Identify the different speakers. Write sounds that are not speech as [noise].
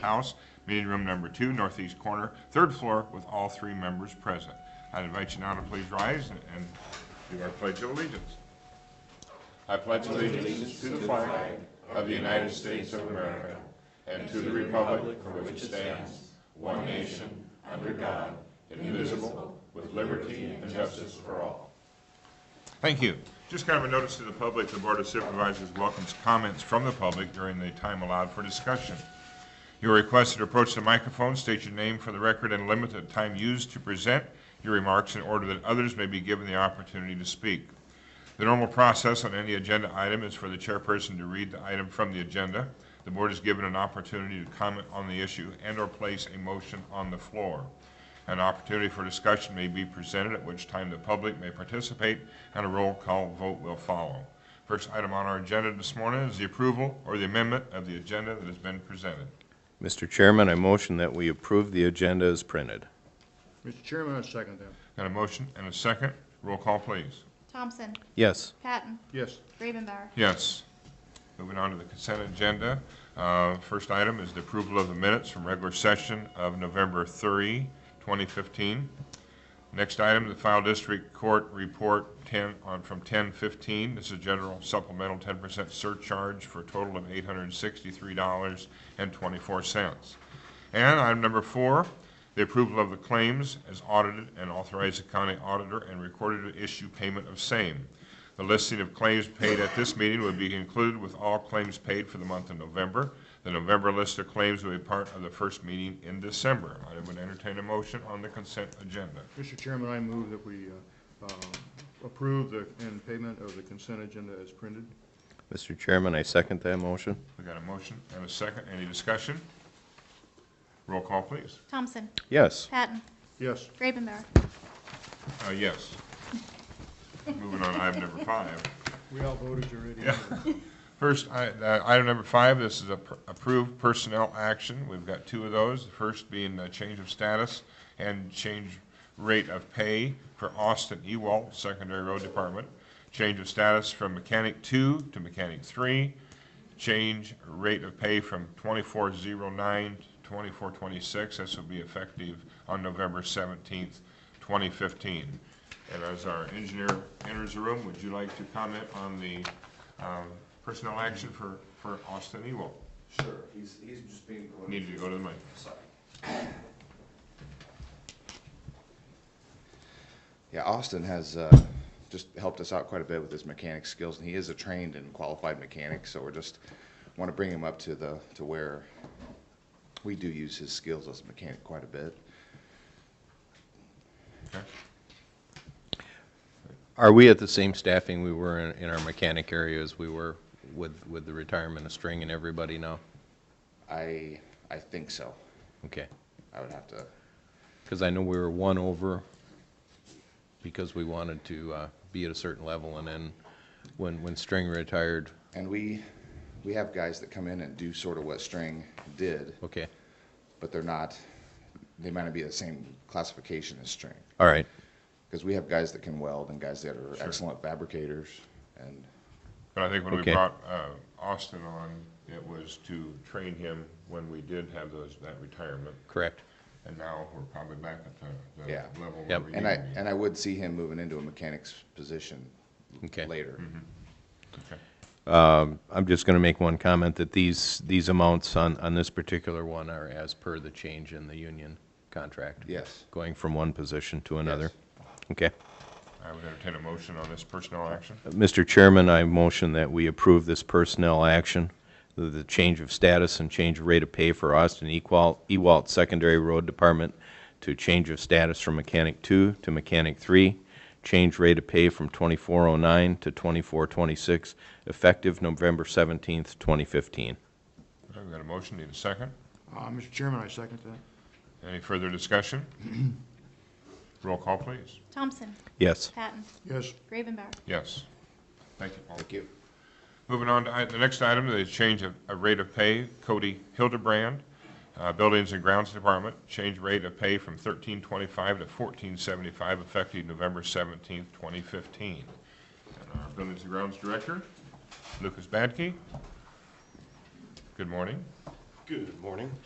Speaker 1: House, meeting room number two, northeast corner, third floor, with all three members present. I'd invite you now to please rise and- and do our pledge of allegiance. I pledge allegiance to the flag of the United States of America and to the republic for which it stands, one nation, under God, indivisible, with liberty and justice for all. Thank you. Just kind of a notice to the public, the Board of Supervisors welcomes comments from the public during the time allowed for discussion. You are requested to approach the microphone, state your name for the record, and limit the time used to present your remarks in order that others may be given the opportunity to speak. The normal process on any agenda item is for the chairperson to read the item from the agenda. The board is given an opportunity to comment on the issue and/or place a motion on the floor. An opportunity for discussion may be presented, at which time the public may participate, and a roll call vote will follow. First item on our agenda this morning is the approval or the amendment of the agenda that has been presented.
Speaker 2: Mr. Chairman, I motion that we approve the agenda as printed.
Speaker 3: Mr. Chairman, I second that.
Speaker 1: Got a motion and a second. Roll call, please.
Speaker 4: Thompson,
Speaker 2: Yes.
Speaker 4: Patton,
Speaker 3: Yes,
Speaker 4: Ravenbauer,
Speaker 1: Yes. Moving on to the consent agenda. Uh, First item is the approval of the minutes from regular session of November 3, 2015. Next item, the file district court report 10, on, from 1015. This is general supplemental 10% surcharge for a total of $863.24. And item number four, the approval of the claims as audited and authorize the county auditor and recorder to issue payment of same. The listing of claims paid at this meeting would be included with all claims paid for the month of November. The November list of claims will be part of the first meeting in December. I would entertain a motion on the consent agenda.
Speaker 3: Mr. Chairman, I move that we uh, uh, approve the, and payment of the consent agenda as printed.
Speaker 2: Mr. Chairman, I second that motion.
Speaker 1: We got a motion and a second. Any discussion? Roll call, please.
Speaker 4: Thompson,
Speaker 2: Yes.
Speaker 4: Patton,
Speaker 3: Yes,
Speaker 4: Ravenbauer.
Speaker 1: Uh, yes. Moving on, to item number five.
Speaker 3: we all voted already.
Speaker 1: First, i- uh, item number five, this is a pr- approved personnel action. We've got two of those, the first being a change of status and change rate of pay for Austin Ewalt, Secondary Road Department. Change of status from mechanic two to mechanic three. Change rate of pay from twenty-four zero nine to twenty-four twenty-six. This will be effective on November seventeenth, twenty fifteen. And as our engineer enters the room, would you like to comment on the um, personnel action for, for Austin Ewell?
Speaker 5: Sure, he's, he's just being.
Speaker 1: Need you to go to the mic.
Speaker 5: Sorry. Yeah, Austin has uh, just helped us out quite a bit with his mechanic skills, and he is a trained and qualified mechanic, so we're just, want to bring him up to the, to where we do use his skills as a mechanic quite a bit.
Speaker 1: Okay.
Speaker 2: Are we at the same staffing we were in, in our mechanic area as we were with, with the retirement of String and everybody now?
Speaker 5: I, I think so.
Speaker 2: Okay.
Speaker 5: I would have to,
Speaker 2: Because I know we were one over because we wanted to, uh, be at a certain level and then when, when String retired,
Speaker 5: and we, we have guys that come in and do sort of what String did,
Speaker 2: okay,
Speaker 5: but they're not, they might not be the same classification as String.
Speaker 2: all right.
Speaker 5: Because we have guys that can weld and guys that are excellent fabricators. And
Speaker 1: But I think when we
Speaker 2: Okay.
Speaker 1: brought uh, Austin on, it was to train him when we did have those, that retirement.
Speaker 2: Correct.
Speaker 1: And now we're probably back at the, the
Speaker 5: Yeah.
Speaker 1: level where
Speaker 2: Yep.
Speaker 1: we need
Speaker 5: and I
Speaker 1: to be.
Speaker 5: and I would see him moving into a mechanic's position
Speaker 2: Okay.
Speaker 5: later.
Speaker 1: Okay.
Speaker 2: I'm just gonna make one comment that these, these amounts on, on this particular one are as per the change in the union contract.
Speaker 5: Yes.
Speaker 2: Going from one position to another. Okay.
Speaker 1: I would entertain a motion on this personnel action.
Speaker 2: Mr. Chairman, I motion that we approve this personnel action, the, the change of status and change of rate of pay for Austin Ewalt, Ewalt Secondary Road Department to change of status from mechanic two to mechanic three, change rate of pay from twenty-four oh nine to twenty-four twenty-six, effective November seventeenth, twenty fifteen.
Speaker 1: Okay, we got a motion, need a second.
Speaker 3: Uh, Mr. Chairman, I second that.
Speaker 1: Any further discussion? [clears throat] Roll call, please.
Speaker 4: Thompson,
Speaker 2: Yes.
Speaker 4: Patton,
Speaker 3: Yes,
Speaker 4: Ravenbauer.
Speaker 1: Yes. Thank you, Paul.
Speaker 5: Thank you.
Speaker 1: Moving on to i- the next item, the change of of rate of pay, Cody Hildebrand, uh, Buildings and Grounds Department, change rate of pay from thirteen twenty-five to fourteen seventy-five, effective November seventeenth, twenty fifteen. And our Buildings and Grounds Director, Lucas Badke. Good morning.
Speaker 6: Good morning.